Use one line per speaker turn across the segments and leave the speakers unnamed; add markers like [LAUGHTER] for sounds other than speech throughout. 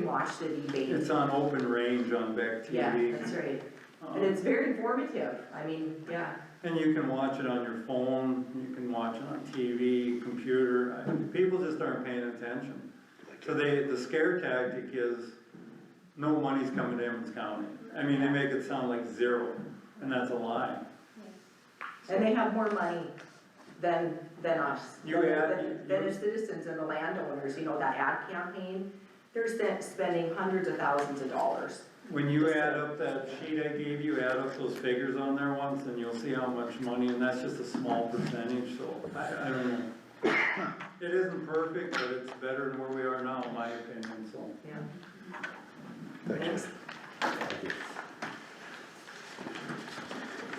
watch the debate.
It's on open range on Beck
Yeah,
TV.
that's right.
Um,
And it's very informative. I mean, yeah,
And you can watch it on your phone, you can watch it on TV, computer, I- people just aren't paying attention. So they, the scare tactic is, no money's coming to Emmons County. I mean, they make it sound like zero, and that's a lie.
and they have more money than, than us.
You
than-
add-
than-
you-
Than the citizens and the landowners, you know, that ad campaign, they're spent, spending hundreds of thousands of dollars.
When you add up that sheet I gave you, add up those figures on there once, and you'll see how much money, and that's just a small percentage, so I, I don't know. It isn't perfect, but it's better than where we are now, in my opinion, so.
Yeah.
Thank you.
Thanks.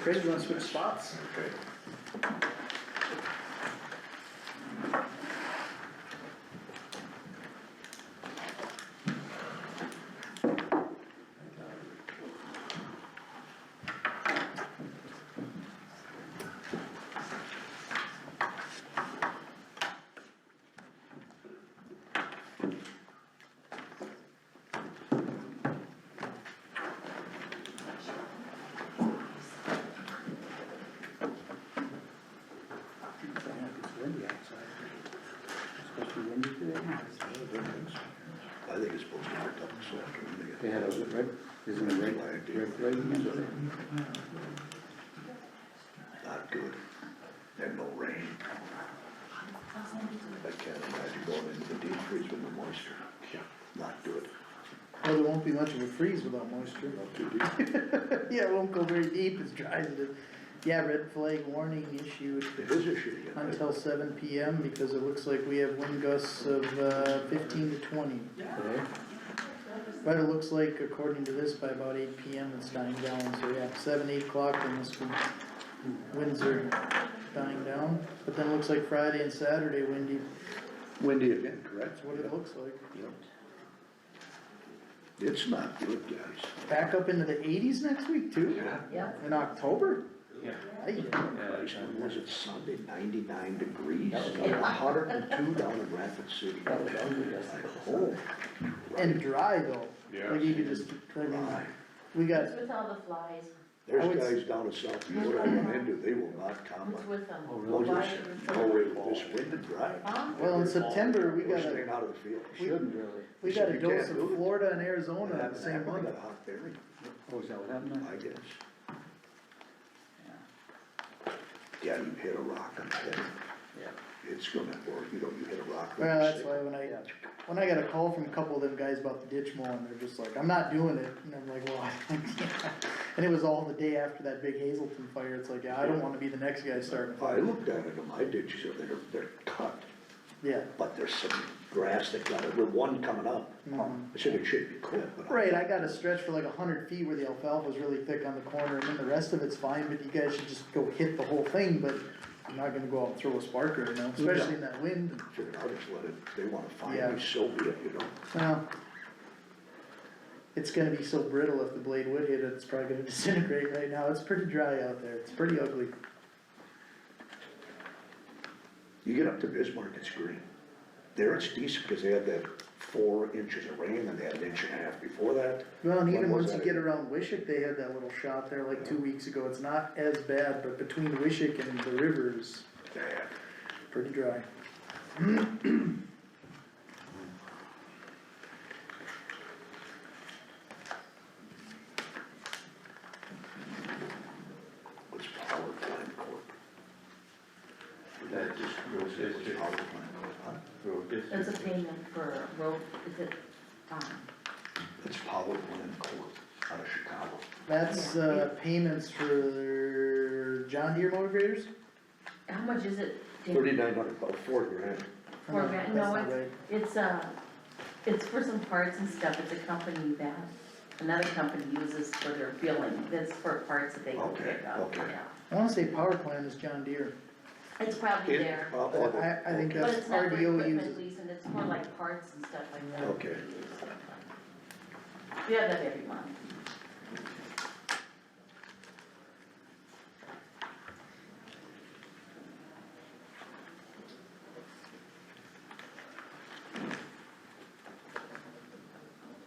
Chris, you wanna switch spots? Okay. It's windy outside. It's supposed to be windy today.
I think it's supposed to be a couple seconds.
They had a red, isn't it red, red flag yesterday?
Not good, and no rain. I can't imagine going into the deep freeze with the moisture. Yeah. Not good.
Well, there won't be much of a freeze without moisture.
Not too deep.
[LAUGHS] Yeah, it won't go very deep, it's dry as it is. Yeah, red flag warning issued
It is a shitty.
until seven P M because it looks like we have wind gusts of uh, fifteen to twenty. But it looks like according to this, by about eight P M it's dying down, so yeah, seven, eight o'clock and this could, winds are dying down. But then it looks like Friday and Saturday windy,
Windy again, correct?
that's what it looks like.
Yep. It's not good, guys.
Back up into the eighties next week too,
Yeah.
Yeah.
in October?
Yeah.
Aye.
Christ, when was it Sunday, ninety-nine degrees, hundred and two down in Rapid City. Oh,
And dry though. Like you could just, I mean,
my.
we got
It's with all the flies,
I would s-
There's guys down in South Dakota I run into, they will not comment.
it's with them.
Oh, this, no way, this wind and dry.
Huh?
Well, in September, we
We're
got a,
staying out of the field.
we,
Really?
we got a
You can't
dose of
do it.
Florida and
What
Arizona
happened
the same
happened,
month.
got hot berry,
Oh, is that what happened?
I guess. Yeah, you hit a rock on the head.
Yeah.
It's gonna work, you know, you hit a rock.
Well, that's
it's-
why when I, when I got a call from a couple of them guys about the ditch mowing, they're just like, I'm not doing it, and I'm like, well, [LAUGHS] I, and it was all the day after that big Hazelton fire, it's like, yeah, I don't wanna be the next guy starting a
I
fire.
looked at it in my ditches, and they're, they're cut,
Yeah,
but there's some grass that got, it. With one coming up.
Mhm.
I said it should be clipped, but. I-
right, I got a stretch for like a hundred feet where the alfalfa's really thick on the corner, and then the rest of it's fine, but you guys should just go hit the whole thing, but I'm not gonna go out and throw a spark right now, especially in that wind.
Figured I'll just let it, they wanna
Yeah.
find me, so be it, you know?
Well, it's gonna be so brittle if the blade would hit it, it's probably gonna [LAUGHS] disintegrate right now, it's pretty dry out there, it's pretty ugly.
You get up to Bismarck, it's green. There it's decent, cause they had that four inches of rain, and they had an inch and a half before that.
Well, and even
When was
once you
that
get
again?
around Wishick, they had that little shot there like two weeks ago, it's not as bad, but between Wishick and the rivers,
Bad.
pretty dry.
was Power Plant Corp.
That just goes
It was
into-
Power Plant Corp, huh?
That's a payment for road, is it, um,
It's Power Plant Corp out of Chicago.
That's, uh, payments for John Deere motor graders?
how much is it? Dan?
Thirty-nine hundred, about four grand.
Four
Uh,
grand,
that's
no,
not
it's, it's, uh, it's for some parts and stuff, it's a company that another company uses for their billing, that's for parts that they can
Okay,
pick up,
okay.
yeah.
right. I wanna say power plant is John Deere,
It's probably
It-
there,
uh,
I,
oh,
I think
okay.
but
that's
it's not for
RDO
equipment
uses.
lease, and it's more like parts and stuff like that.
Okay.
We have that every month,